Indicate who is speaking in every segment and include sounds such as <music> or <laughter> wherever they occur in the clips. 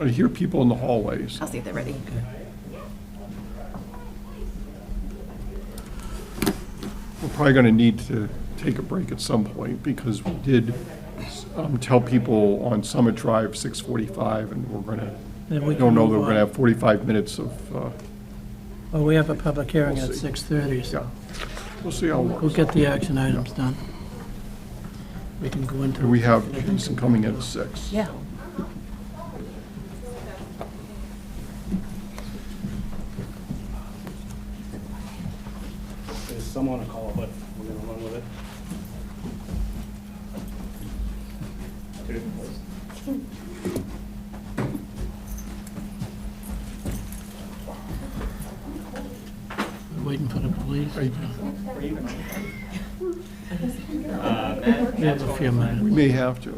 Speaker 1: I hear people in the hallways.
Speaker 2: I'll see if they're ready.
Speaker 1: We're probably going to need to take a break at some point because we did um, tell people on Summit Drive, 6:45, and we're going
Speaker 3: Then
Speaker 1: to,
Speaker 3: we can
Speaker 1: don't know that
Speaker 3: move
Speaker 1: we're going
Speaker 3: on.
Speaker 1: to have 45 minutes of, uh,
Speaker 3: Well, we have a public hearing
Speaker 1: We'll
Speaker 3: at
Speaker 1: see.
Speaker 3: 6:30, so
Speaker 1: yeah, we'll see how it
Speaker 3: we'll
Speaker 1: works.
Speaker 3: get the action items done. We can go into.
Speaker 1: And we have Jason coming in at 6.
Speaker 2: Yeah.
Speaker 4: There's someone to call, but we're gonna run with it.
Speaker 3: We're Waiting for the police.
Speaker 1: I-
Speaker 3: Uh, We have a few
Speaker 1: We
Speaker 3: minutes.
Speaker 1: may have to.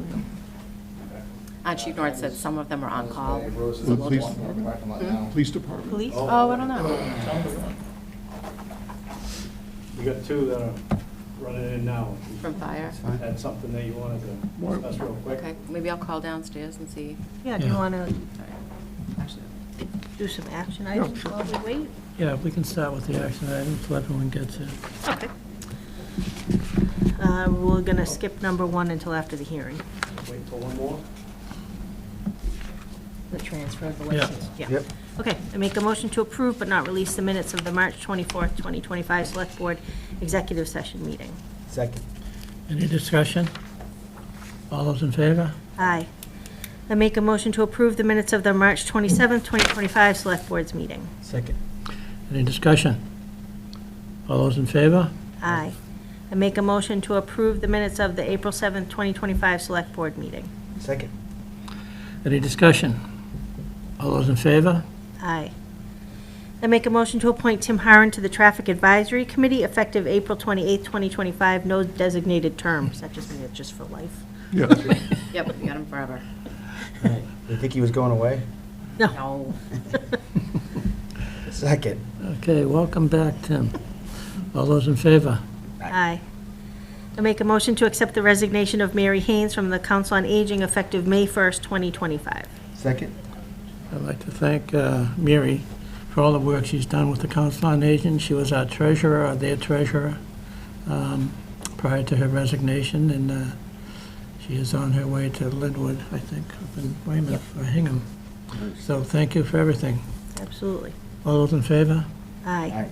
Speaker 2: Uh, Chief Norton said some of them are on call.
Speaker 1: The police, police department.
Speaker 2: Police? Oh, I don't know.
Speaker 4: We got two that are running in now.
Speaker 2: From fire?
Speaker 4: That's something that you wanted to
Speaker 1: Why-
Speaker 4: discuss real quick.
Speaker 2: Okay, maybe I'll call downstairs and see.
Speaker 5: Yeah, do you
Speaker 3: Yeah.
Speaker 5: want to
Speaker 2: Sorry. Actually,
Speaker 5: do some action items
Speaker 1: sure.
Speaker 5: while we wait?
Speaker 3: Yeah, we can start with the action items, till everyone gets it.
Speaker 5: Okay. Uh, We're going to skip number one until after the hearing,
Speaker 4: Wait till one more.
Speaker 5: the transfer of the
Speaker 3: Yeah.
Speaker 5: license. Yeah. Okay, I make a motion to approve but not release the minutes of the March 24th, 2025 Select Board Executive Session Meeting.
Speaker 6: Second.
Speaker 3: Any discussion? All those in favor?
Speaker 5: Aye. I make a motion to approve the minutes of the March 27th, 2025 Select Boards Meeting.
Speaker 6: Second.
Speaker 3: Any discussion? All those in favor?
Speaker 5: Aye. I make a motion to approve the minutes of the April 7th, 2025 Select Board Meeting.
Speaker 6: Second.
Speaker 3: Any discussion? All those in favor? <laughs>
Speaker 5: Aye. I make a motion to appoint Tim Harron to the Traffic Advisory Committee effective April 28th, 2025, no designated terms. That just means it's just for life.
Speaker 1: Yes.
Speaker 2: Yep, you got them forever.
Speaker 6: You think he was going away?
Speaker 2: No.
Speaker 6: Second.
Speaker 3: Okay, welcome back, Tim. All those in favor?
Speaker 5: Aye. I make a motion to accept the resignation of Mary Haynes from the Council on Aging effective May 1st, 2025.
Speaker 6: Second.
Speaker 3: I'd like to thank uh, Mary for all the work she's done with the Council on Aging. She was our treasurer, or their treasurer, um, prior to her resignation, and uh, she is on her way to Linwood, I think, up in Weymouth or Hingham. So thank you for everything.
Speaker 5: Absolutely.
Speaker 3: All those in favor?
Speaker 5: Aye.
Speaker 6: Aye.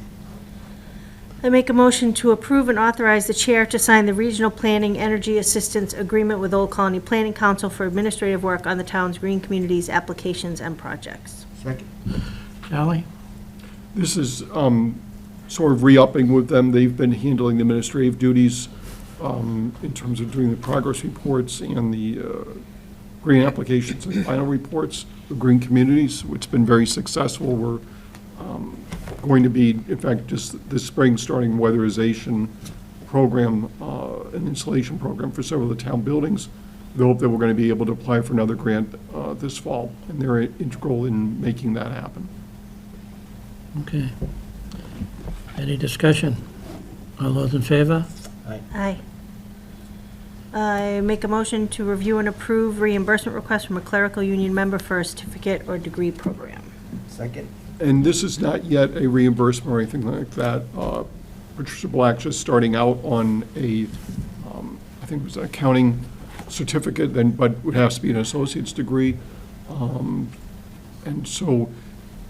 Speaker 5: I make a motion to approve and authorize the chair to sign the Regional Planning Energy Assistance Agreement with Old Colony Planning Council for administrative work on the town's green communities, applications, and projects.
Speaker 6: Second.
Speaker 3: Charlie?
Speaker 1: This is um, sort of re-upping with them. They've been handling the administrative duties um, in terms of doing the progress reports and the uh, green applications and final reports of green communities. It's been very successful. We're um, going to be, in fact, just this spring, starting weatherization program, uh, an installation program for several of the town buildings. We hope that we're going to be able to apply for another grant uh, this fall, and they're integral in making that happen.
Speaker 3: Okay. Any discussion? All those in favor?
Speaker 5: Aye. I make a motion to review and approve reimbursement request from a clerical union member for a certificate or degree program.
Speaker 6: Second.
Speaker 1: And this is not yet a reimbursement or anything like that. Uh, Patricia Black just starting out on a, um, I think it was an accounting certificate, then, but would have to be an associate's degree. Um, And so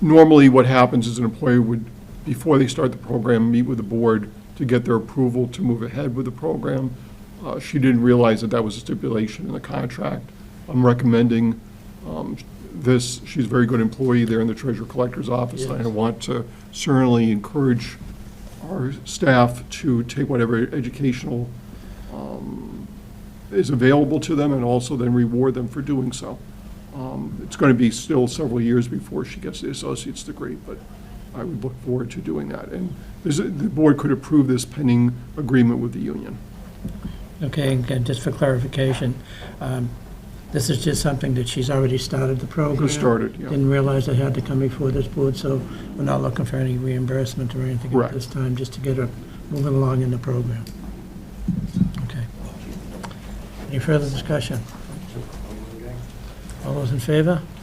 Speaker 1: normally what happens is an employee would, before they start the program, meet with the board to get their approval to move ahead with the program. Uh, She didn't realize that that was a stipulation in the contract. I'm recommending um, this, she's a very good employee there in the treasurer collector's office. and I want to certainly encourage our staff to take whatever educational um, is available to them and also then reward them for doing so. Um, It's going to be still several years before she gets the associate's degree, but I would look forward to doing that. And this- the board could approve this pending agreement with the union.
Speaker 3: Okay, and again, just for clarification, um, this is just something that she's already started the program?
Speaker 1: started, yeah.
Speaker 3: Didn't realize it had to come before this board, so we're not looking for any reimbursement or anything at
Speaker 1: Correct.
Speaker 3: this time, just to get her moving along in the program. Okay. Any further discussion? All those in favor?